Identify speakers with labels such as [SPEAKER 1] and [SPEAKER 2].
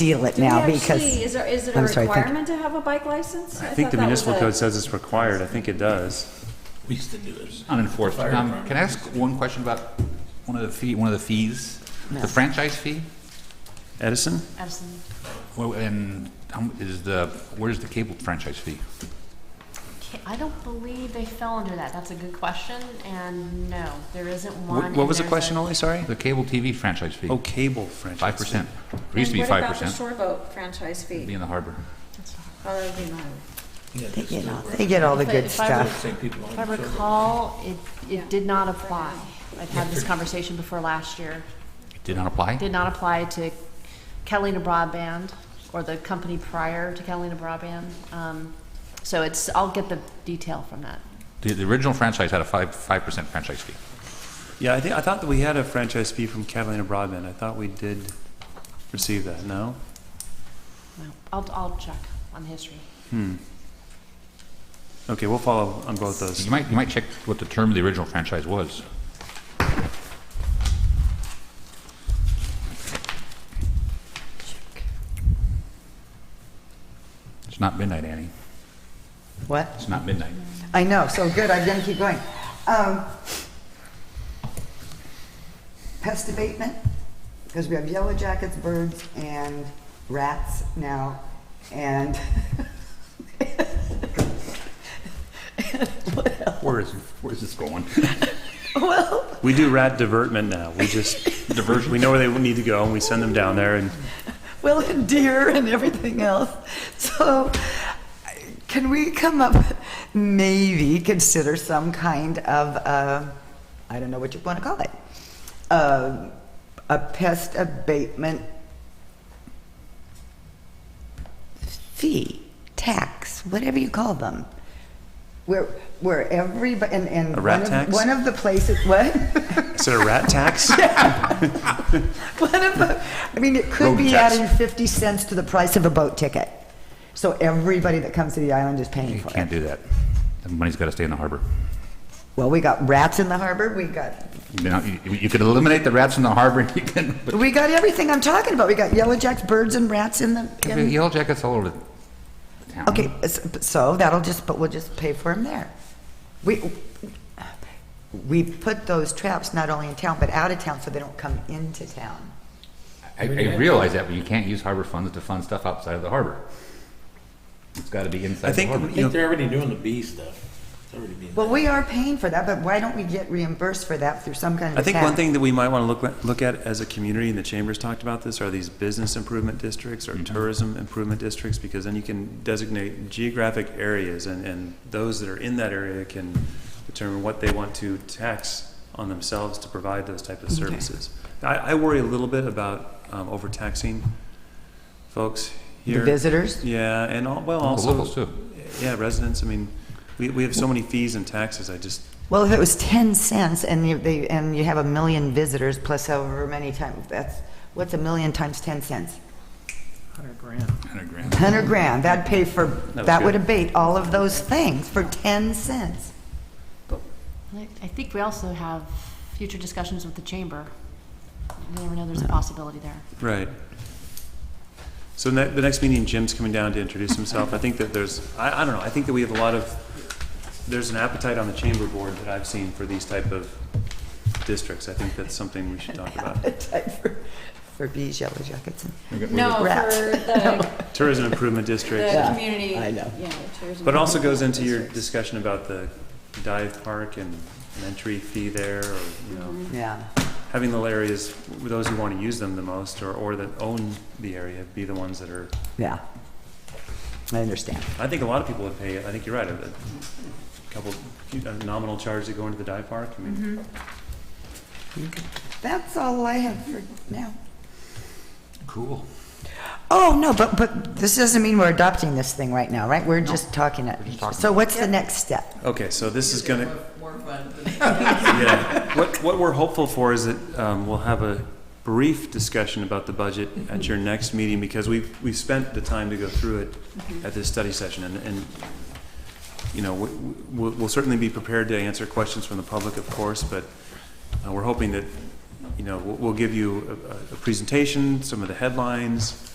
[SPEAKER 1] deal it
[SPEAKER 2] Do we
[SPEAKER 1] now
[SPEAKER 2] actually-
[SPEAKER 1] because,
[SPEAKER 2] Is there, is it a
[SPEAKER 1] I'm sorry, thank you.
[SPEAKER 2] requirement to have a bike license?
[SPEAKER 3] I think
[SPEAKER 2] thought
[SPEAKER 3] the
[SPEAKER 2] that was
[SPEAKER 3] municipal
[SPEAKER 2] a-
[SPEAKER 3] code says it's required. I think it does.
[SPEAKER 4] We used to do this.
[SPEAKER 5] Unenforced.
[SPEAKER 4] Fire
[SPEAKER 5] Um,
[SPEAKER 4] department.
[SPEAKER 5] can I ask one question about one of the fee, one of the fees? The franchise fee?
[SPEAKER 3] Edison?
[SPEAKER 2] Absolutely.
[SPEAKER 5] Well, and how is the, where's the cable franchise fee?
[SPEAKER 6] Ca- I don't believe they fell under that. That's a good question, and no, there isn't one.
[SPEAKER 3] What
[SPEAKER 6] and
[SPEAKER 3] what was the
[SPEAKER 6] there's a-
[SPEAKER 3] question, Ollie? Sorry?
[SPEAKER 5] The cable TV franchise fee,
[SPEAKER 3] Oh, cable franchise.
[SPEAKER 5] five percent. It used to be
[SPEAKER 2] And
[SPEAKER 5] five
[SPEAKER 2] What about the
[SPEAKER 5] percent.
[SPEAKER 2] shore boat franchise
[SPEAKER 5] Be
[SPEAKER 2] fee?
[SPEAKER 5] in the harbor.
[SPEAKER 2] Oh, that would be mine.
[SPEAKER 4] Yeah,
[SPEAKER 1] they
[SPEAKER 4] this
[SPEAKER 1] get
[SPEAKER 4] is
[SPEAKER 1] all,
[SPEAKER 4] where
[SPEAKER 1] they get all the
[SPEAKER 6] If I-
[SPEAKER 1] good
[SPEAKER 6] if I were-
[SPEAKER 1] stuff.
[SPEAKER 4] Same people on
[SPEAKER 6] If I
[SPEAKER 4] the survey.
[SPEAKER 6] recall, it, it did not apply. I've had this conversation before last year.
[SPEAKER 5] It did not apply?
[SPEAKER 6] Did not apply to Catalina Broadband or the company prior to Catalina Broadband. Um, So it's, I'll get the detail from that.
[SPEAKER 5] The, the original franchise had a five, five percent franchise fee.
[SPEAKER 3] Yeah, I think, I thought that we had a franchise fee from Catalina Broadband. I thought we did receive that, no?
[SPEAKER 6] Well, I'll, I'll check on the history.
[SPEAKER 3] Okay, we'll follow on both those.
[SPEAKER 5] You might, you might check what the term of the original franchise was. It's not midnight, Annie.
[SPEAKER 1] What?
[SPEAKER 5] It's not midnight.
[SPEAKER 1] I know, so good, I'm gonna keep going. Um, Pest abatement, because we have yellow jackets, birds, and rats now, and
[SPEAKER 5] Where is, where is this going?
[SPEAKER 3] We do rat divertment now. We just,
[SPEAKER 5] Diversion.
[SPEAKER 3] we know where they need to go and we send them down there and
[SPEAKER 1] well, and deer and everything else. So can we come up, maybe consider some kind of, uh, I don't know what you want to call it, uh, a pest abatement fee, tax, whatever you call them. Where, where everybody, and, and.
[SPEAKER 3] A rat
[SPEAKER 1] one of-
[SPEAKER 3] tax?
[SPEAKER 1] One of the places, what?
[SPEAKER 3] Is it a rat tax?
[SPEAKER 1] One of the, I mean, it could
[SPEAKER 5] Road
[SPEAKER 1] be
[SPEAKER 5] tax.
[SPEAKER 1] adding 50 cents to the price of a boat ticket. So everybody that comes to the island is paying
[SPEAKER 5] You
[SPEAKER 1] for
[SPEAKER 5] can't
[SPEAKER 1] it.
[SPEAKER 5] do that. The money's got to stay in the harbor.
[SPEAKER 1] Well, we got rats in the harbor, we got,
[SPEAKER 5] You know, you, you could eliminate the rats in the harbor, you can, but
[SPEAKER 1] we got everything I'm talking about. We got yellow jacks, birds and rats in the, in-
[SPEAKER 5] yellow jackets all over the town.
[SPEAKER 1] okay, s- so that'll just, but we'll just pay for them there. We, we put those traps not only in town, but out of town, so they don't come into town.
[SPEAKER 5] I, I realize that, but you can't use harbor funds to fund stuff outside of the harbor. It's got to be
[SPEAKER 3] I
[SPEAKER 5] inside the
[SPEAKER 3] think,
[SPEAKER 5] harbor.
[SPEAKER 4] I
[SPEAKER 3] you
[SPEAKER 4] think
[SPEAKER 3] know,
[SPEAKER 4] they're already doing the bee stuff. It's already being.
[SPEAKER 1] Well, we are paying for that, but why don't we get reimbursed for that through some kind of
[SPEAKER 3] I
[SPEAKER 1] tax?
[SPEAKER 3] think one thing that we might want to look, at- look at as a community, and the chambers talked about this, are these business improvement districts or
[SPEAKER 5] Mm-hmm.
[SPEAKER 3] tourism improvement districts, because then you can designate geographic areas, and, and those that are in that area can determine what they want to tax on themselves to provide those type of services. I, I worry a little bit about um, overtaxing folks
[SPEAKER 1] The
[SPEAKER 3] here.
[SPEAKER 1] visitors?
[SPEAKER 3] Yeah, and, all- well,
[SPEAKER 5] The locals,
[SPEAKER 3] also,
[SPEAKER 5] too.
[SPEAKER 3] yeah, residents, I mean, we, we have so many fees and taxes, I just,
[SPEAKER 1] Well, if it was 10 cents and you, they, and you have a million visitors plus however many times, that's, what's a million times 10 cents? 100 grand, that'd pay for,
[SPEAKER 3] was
[SPEAKER 1] that would
[SPEAKER 3] good.
[SPEAKER 1] abate all of those things for 10 cents.
[SPEAKER 6] I I think we also have future discussions with the chamber. You never know, there's a possibility there.
[SPEAKER 3] Right. So ne- the next meeting, Jim's coming down to introduce himself. I think that there's, I, I don't know, I think that we have a lot of, there's an appetite on the chamber board that I've seen for these type of districts. I think that's something we should talk about.
[SPEAKER 1] Appetite for- For bees, yellow jackets. and-
[SPEAKER 2] No, for
[SPEAKER 1] Rats.
[SPEAKER 2] the,
[SPEAKER 3] Tourism improvement
[SPEAKER 2] the
[SPEAKER 3] districts.
[SPEAKER 2] community.
[SPEAKER 1] I know.
[SPEAKER 2] yeah, the tourism
[SPEAKER 3] But also goes into your
[SPEAKER 2] districts.
[SPEAKER 3] discussion about the dive park and an entry fee there, or, you know,
[SPEAKER 1] Yeah.
[SPEAKER 3] having the areas, those who want to use them the most, or, or that own the area, be the ones that are
[SPEAKER 1] Yeah. I understand.
[SPEAKER 3] I think a lot of people would pay, I think you're right, a a couple, a nominal charge to go into the dive park, I mean,
[SPEAKER 1] That's all I have for now.
[SPEAKER 5] Cool.
[SPEAKER 1] Oh, no, but, but this doesn't mean we're adopting this thing right now, right? We're just talking it.
[SPEAKER 5] we're just talking.
[SPEAKER 1] So what's the next step?
[SPEAKER 3] okay, so this is gonna. More fun. Yeah, what, what we're hopeful for is that, um, we'll have a brief discussion about the budget at your next meeting, because we've, we've spent the time to go through it at this study session, and, and, you know, we- we'll, we'll certainly be prepared to answer questions from the public, of course, but uh, we're hoping that, you know, we'll, we'll give you a, a- a presentation, some of the headlines,